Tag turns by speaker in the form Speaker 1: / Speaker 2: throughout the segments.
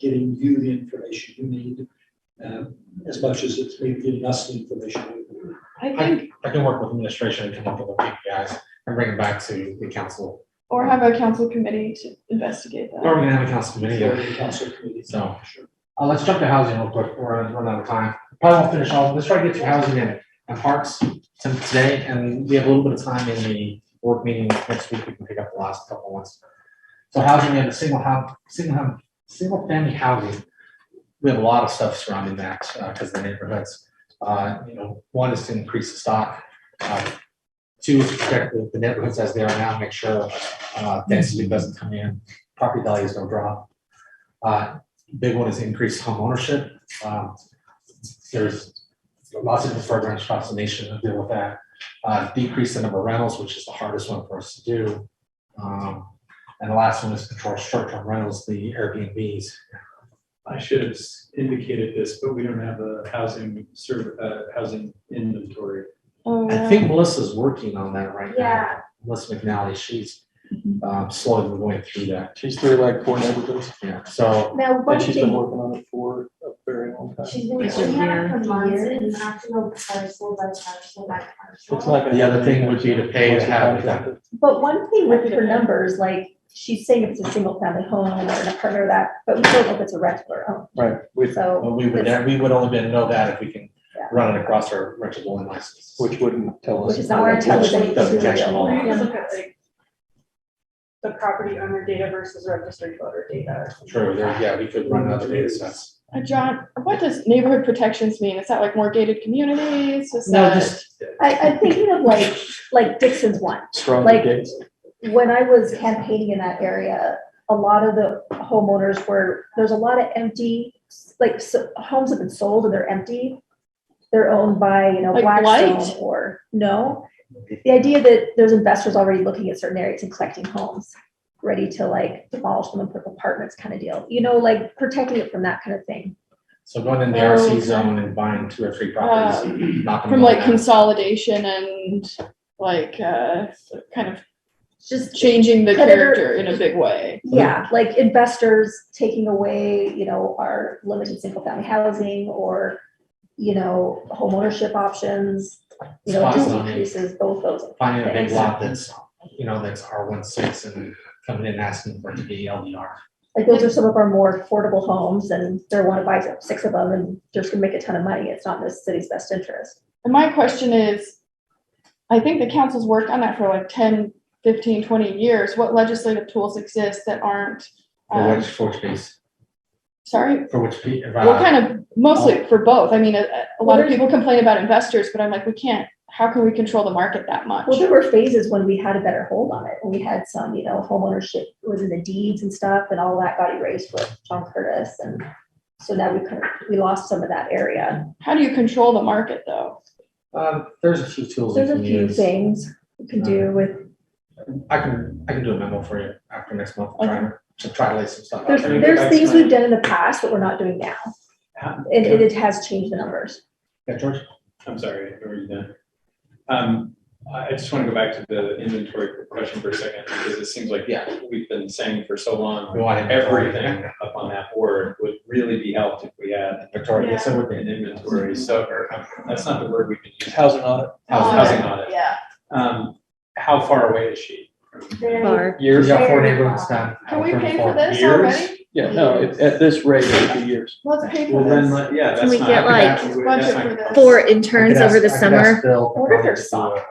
Speaker 1: getting you the information you need, um, as much as it's maybe getting us the information. we need.
Speaker 2: I think,
Speaker 3: I can work with administration and come up with the KPIs and bring it back to the council.
Speaker 2: or have a council committee to investigate
Speaker 3: Or
Speaker 2: that.
Speaker 3: we can have a council committee.
Speaker 1: For the Council committee.
Speaker 3: So.
Speaker 1: Sure.
Speaker 3: Uh, let's jump to housing real quick. We're running out of time. Probably won't finish all. Let's try to get through housing and, and parks to- today. And we have a little bit of time in the work meeting next week. We can pick up the last couple ones. So housing, we have a single hub, single hub, single family housing. We have a lot of stuff surrounding that, uh, because of the neighborhoods. Uh, you know, one is to increase the stock. Uh, Two is to protect the- the neighborhoods as they are now, make sure, uh, density doesn't come in, property values don't drop. Uh, Big one is increased homeownership. Um, There's lots of different programs across the nation that deal with that. Uh, Decrease the number of rentals, which is the hardest one for us to do. Um, And the last one is control short-term rentals, the Airbnbs.
Speaker 4: I should have indicated this, but we don't have a housing serv, uh, housing inventory.
Speaker 2: Oh,
Speaker 3: I
Speaker 2: yeah.
Speaker 3: think Melissa's working on that right now.
Speaker 5: Yeah.
Speaker 3: Melissa McNally, she's
Speaker 2: Mhm.
Speaker 3: um, slowly going through that.
Speaker 6: She's through like four neighborhoods,
Speaker 3: Yeah, so
Speaker 5: Now, one
Speaker 6: and she's been
Speaker 5: thing,
Speaker 6: working on it for a very long time.
Speaker 5: she's been, we
Speaker 3: It's
Speaker 5: have
Speaker 2: here.
Speaker 5: it for months, and you have to go parcel by parcel by
Speaker 6: It's
Speaker 5: parcel.
Speaker 6: not gonna
Speaker 3: The other thing would be to pay to have it done.
Speaker 7: But one thing with her numbers, like, she's saying if it's a single family home or an apartment or that, but we don't know if it's a rental or own,
Speaker 6: Right, which,
Speaker 7: so.
Speaker 3: well, we would, we would only been know that if we can
Speaker 7: Yeah.
Speaker 3: run it across our rentable and licenses.
Speaker 6: which wouldn't tell us.
Speaker 7: Which is not gonna tell us anything.
Speaker 6: Doesn't catch them all.
Speaker 8: Or you
Speaker 7: Yeah.
Speaker 8: can look at like the property owner data versus registered voter data. or something
Speaker 3: True,
Speaker 8: like
Speaker 3: there,
Speaker 8: that.
Speaker 3: yeah, we could
Speaker 1: Mm-hmm.
Speaker 3: run other data sets.
Speaker 2: Uh, John, what does neighborhood protections mean? Is that like more gated communities? Is
Speaker 3: No,
Speaker 2: that?
Speaker 3: just,
Speaker 7: I, I'm thinking of like, like Dixon's one,
Speaker 6: Stronger
Speaker 7: Like-
Speaker 6: gates.
Speaker 7: when I was campaigning in that area, a lot of the homeowners were, there's a lot of empty, like, s- homes have been sold and they're empty. They're owned by, you know,
Speaker 2: Like
Speaker 7: Blackstone
Speaker 2: blight?
Speaker 7: or, no. The idea that there's investors already looking at certain areas and collecting homes, ready to like demolish them and put up apartments kind of deal, you know, like protecting it from that kind of thing.
Speaker 3: so going in the
Speaker 2: Oh,
Speaker 3: RC
Speaker 2: okay. Uh,
Speaker 3: zone and buying two or three properties, not gonna.
Speaker 2: From
Speaker 3: go
Speaker 2: like
Speaker 3: down.
Speaker 2: consolidation and like, uh, kind of
Speaker 7: It's Just,
Speaker 2: changing the
Speaker 7: Predator-
Speaker 2: character in a big way.
Speaker 7: yeah, like investors taking away, you know, our limited single family housing or, you know, homeownership options. You know, it just
Speaker 3: Spot zoning.
Speaker 7: increases both those.
Speaker 3: Finding a big
Speaker 7: things.
Speaker 3: lot that's, you know, that's R one six and coming in and asking for it to be LDR.
Speaker 7: Like those are some of our more affordable homes and they're want to buy six of them and they're just gonna make a ton of money. It's not in the city's best interest.
Speaker 2: And my question is, I think the council's worked on that for like 10, 15, 20 years. What legislative tools exist that aren't,
Speaker 3: For
Speaker 2: um,
Speaker 3: which, for which piece,
Speaker 2: sorry?
Speaker 3: for which uh, piece?
Speaker 2: What kind of,
Speaker 4: Oh.
Speaker 2: mostly for both. I mean, a, a lot of people complain about investors, but I'm like, we can't, how can we control the market that much?
Speaker 7: Well, there were phases when we had a better hold on it. When we had some, you know, homeownership was in the deeds and stuff and all that got erased with John Curtis. And so now we kind of, we lost some of that area.
Speaker 2: How do you control the market though?
Speaker 3: Uh, there's a few tools we
Speaker 7: There's
Speaker 3: can
Speaker 7: a few
Speaker 3: use.
Speaker 7: things we can do with
Speaker 3: I can, I can do a memo for you after next month, try to, to try to lay some stuff out.
Speaker 7: There's,
Speaker 4: Okay,
Speaker 3: there.
Speaker 7: there's
Speaker 4: that's
Speaker 7: things
Speaker 4: fine.
Speaker 7: we've done in the past that we're not doing now.
Speaker 4: How-
Speaker 7: And it, it has changed the numbers.
Speaker 3: Yeah, George?
Speaker 4: I'm sorry, were you done? Um, I, I just want to go back to the inventory question for a second, because it seems like, yeah, we've been saying for so long,
Speaker 3: We want it.
Speaker 4: everything up on that board would really be helped if we had
Speaker 3: Victoria, yes, I would
Speaker 4: an
Speaker 3: be.
Speaker 4: inventory, so, or, um, that's not the word we've been using.
Speaker 6: Housing audit,
Speaker 3: Housing.
Speaker 2: Uh,
Speaker 4: Housing audit.
Speaker 2: Yeah.
Speaker 4: Um, how far away is she?
Speaker 5: Very-
Speaker 3: We
Speaker 6: years.
Speaker 3: got four neighborhoods done.
Speaker 2: Can we pay for
Speaker 3: Thirty-four.
Speaker 2: this
Speaker 4: years?
Speaker 2: already?
Speaker 6: Yeah, no, it- at this rate, it'd be years.
Speaker 2: Let's pay for
Speaker 4: Well, then,
Speaker 2: this.
Speaker 4: like, yeah, that's
Speaker 8: Can
Speaker 4: not.
Speaker 8: we get,
Speaker 4: that's
Speaker 2: like,
Speaker 4: not-
Speaker 2: budget
Speaker 4: that's
Speaker 2: for
Speaker 4: not-
Speaker 2: this?
Speaker 8: For
Speaker 3: I could
Speaker 8: interns over
Speaker 3: ask-
Speaker 8: the
Speaker 3: I could
Speaker 8: summer,
Speaker 3: ask Bill
Speaker 7: I wonder if
Speaker 3: Capone
Speaker 7: there's
Speaker 3: to do a-
Speaker 7: software.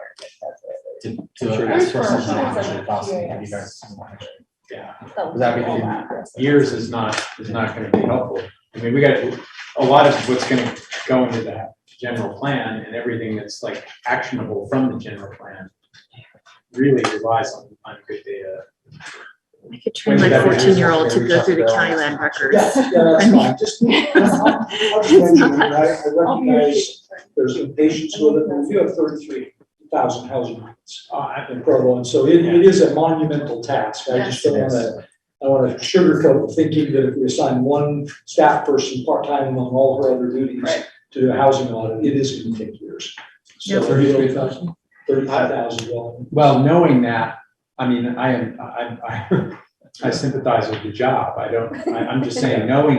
Speaker 3: to,
Speaker 6: Sure.
Speaker 3: to ask for
Speaker 2: Resources.
Speaker 3: some
Speaker 2: Sounds
Speaker 3: action
Speaker 7: like
Speaker 3: costs,
Speaker 7: curious.
Speaker 3: maybe you guys some action.
Speaker 4: Yeah,
Speaker 7: that
Speaker 3: Would that be
Speaker 7: all
Speaker 3: the
Speaker 4: years is not, is not gonna be helpful. I mean, we got, a lot of what's gonna go into that general plan and everything that's like actionable from the general plan really relies on, on good data.
Speaker 8: I could train
Speaker 4: When's
Speaker 8: my
Speaker 4: that gonna be?
Speaker 8: fourteen-year-old to go through the county land records.
Speaker 1: Yeah, yeah, that's fine, just. I'm- I'm saying that I I recognize there's impatience with it, but you have thirty-three thousand housing units uh,
Speaker 4: Oh, I-
Speaker 1: in Provo, and so it, it is a monumental task, I just don't
Speaker 3: Yes.
Speaker 1: wanna, I don't wanna sugarcoat thinking that if we assign one staff person part-time among all her other duties
Speaker 2: Right.
Speaker 1: to the housing audit, it is gonna take years. So
Speaker 8: Yeah.
Speaker 1: thirty-three thousand, thirty-five thousand, well,
Speaker 4: Well, knowing that, I mean, I am, I, I- I sympathize with the job. I don't, I, I'm just saying, knowing